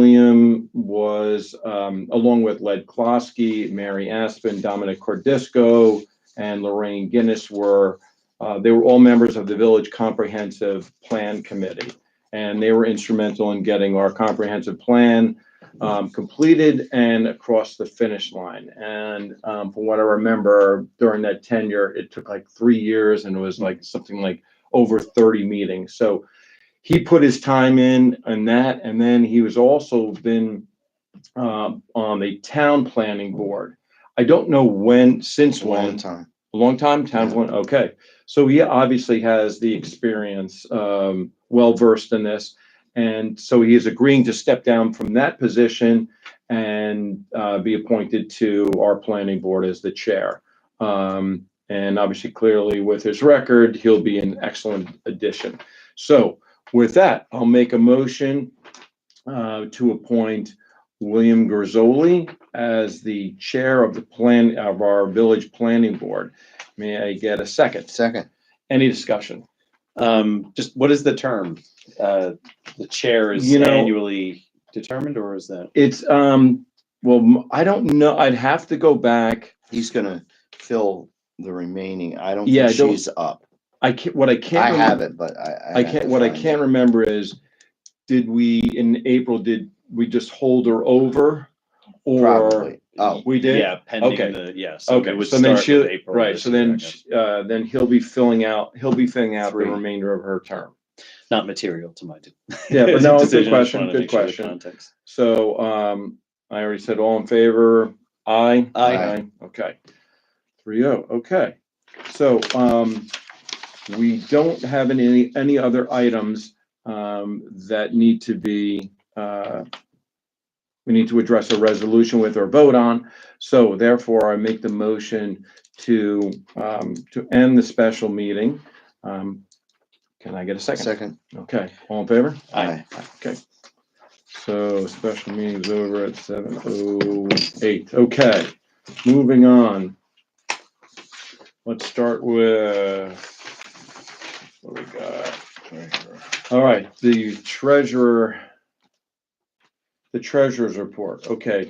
William was, um, along with Led Klosky, Mary Aspen, Dominic Cordisco, and Lorraine Guinness were, uh, they were all members of the Village Comprehensive Plan Committee. And they were instrumental in getting our comprehensive plan um, completed and across the finish line. And um, from what I remember during that tenure, it took like three years and it was like something like over 30 meetings. So he put his time in on that. And then he was also been um, on the town planning board. I don't know when, since It's a long when, time. a long time, town Yeah. one, okay. So he obviously has the experience, um, well versed in this. And so he is agreeing to step down from that position and, uh, be appointed to our planning board as the chair. Um, and obviously clearly with his record, he'll be an excellent addition. So with that, I'll make a motion, uh, to appoint William Grisoli as the chair of the plan, of our village planning board. May I get a second? Second, Any discussion? Um, just what is the term? Uh, the chair is You know- annually determined or is that? It's, um, well, m- I don't know. I'd have to go back. he's gonna fill the remaining. I don't Yeah, think I don't- she's up. I can't, what I can't. I remember- have it, but I. I have to can't, what I find it. can't remember is, did we, in April, did we just hold her over? Or Probably. Oh, we did? Yeah, Okay. pending the, yes. Okay, so then she'll, right, so then, sh- uh, then he'll be filling out, he'll be filling out the Three. remainder of her term. Not material to my. de- Yeah, but no, good decision, I just question, wanted to good make sure the question. context. So, um, I already said all in favor, aye? Aye. Okay. Three oh, okay. So, um, we don't have any, any other items, um, that need to be, uh, we need to address a resolution with or vote on. So therefore, I make the motion to, um, to end the special meeting. Um, can I get a second? second. Okay, all in favor? Aye. So special meeting's over at seven oh eight. Okay, moving on. Let's start with, what we got? All right, the treasurer, the treasurer's report. Okay.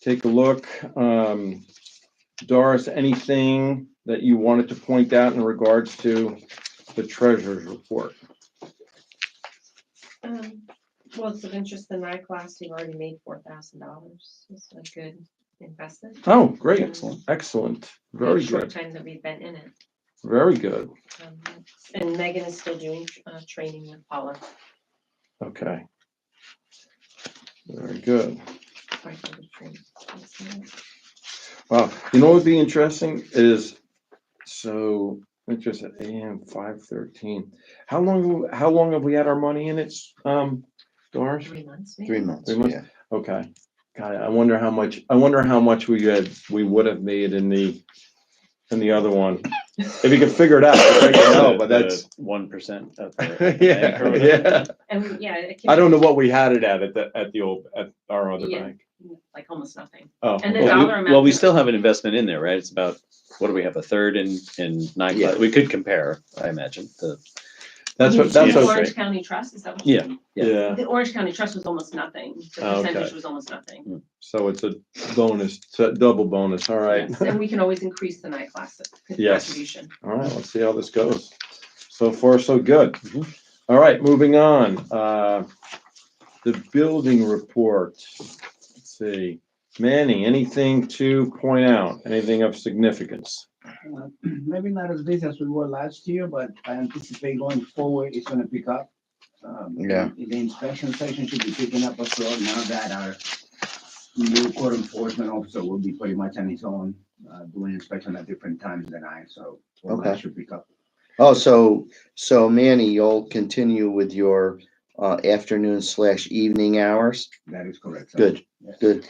Take a look. Um, Doris, anything that you wanted to point out in regards to the treasurer's report? Um, well, it's of interest in my class, we've already made four thousand dollars, it's a good investment. Oh, great, Excellent. excellent, for the very short good. Time that we've been in it, Very good. Um, and Megan is still doing, uh, training with Paula, Okay. Very good. right, for the training. Wow. You know what would be interesting is, so, it's just at AM five thirteen. How long, how long have we had our money in it, um, Doris? Three months, maybe? Three months, Three months. yeah. Okay. God, I wonder how much, I wonder how much we had, we would have made in the, in the other one. If you could figure it out, I don't know, but that's, One percent. yeah, yeah. And, we- yeah. it I don't know came what we had it at, at the, at the old, at our other Yeah. bank. in, Like almost nothing, Oh, And the okay. dollar amount Well, we that- still have an investment in there, right? It's about, what do we have, a third in, in nine? Yeah. We could compare, I imagine, the, That's what, that's The Yeah. okay. Orange County Trust, is that what? Yeah. Yeah. Yeah. Oh, The Orange County Trust was almost nothing, the Okay. percentage was almost nothing. So it's a bonus, it's a double bonus, all right. Yes, And we can always increase the night class Yes. contribution. All right, let's see how this goes. So far, so good. Mhm. All right, moving on. Uh The building report. Let's see. Manny, anything to point out? Anything of significance? Uh, Maybe not as busy as we were last year, but I anticipate going forward, it's gonna pick up. Um, Yeah. The inspection section should be picking up as well, now that our new code enforcement officer will be pretty much on his own, uh, doing inspection at different times than I, so. well, that Okay. Should pick up. Oh, so, so Manny, you'll continue with your uh afternoon slash evening hours? That is correct. sir. Good, Yes. good.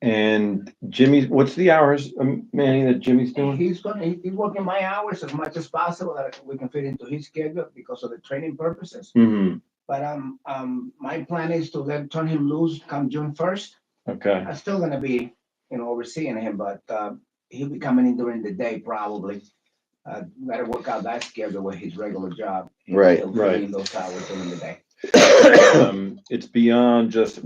And Jimmy, what's the hours, um, Manny, that Jimmy's doing? He's gonna, he- he's working my hours as much as possible, that we can fit into his schedule because of the training purposes. hmm But, um, um, my plan is to let, turn him loose come June first. okay. I'm still gonna be, you know, overseeing him, but uh, he'll be coming in during the day probably. Uh, Gotta work out that schedule with his regular job. Right, He'll be in right. Those hours during the day. Um, It's beyond just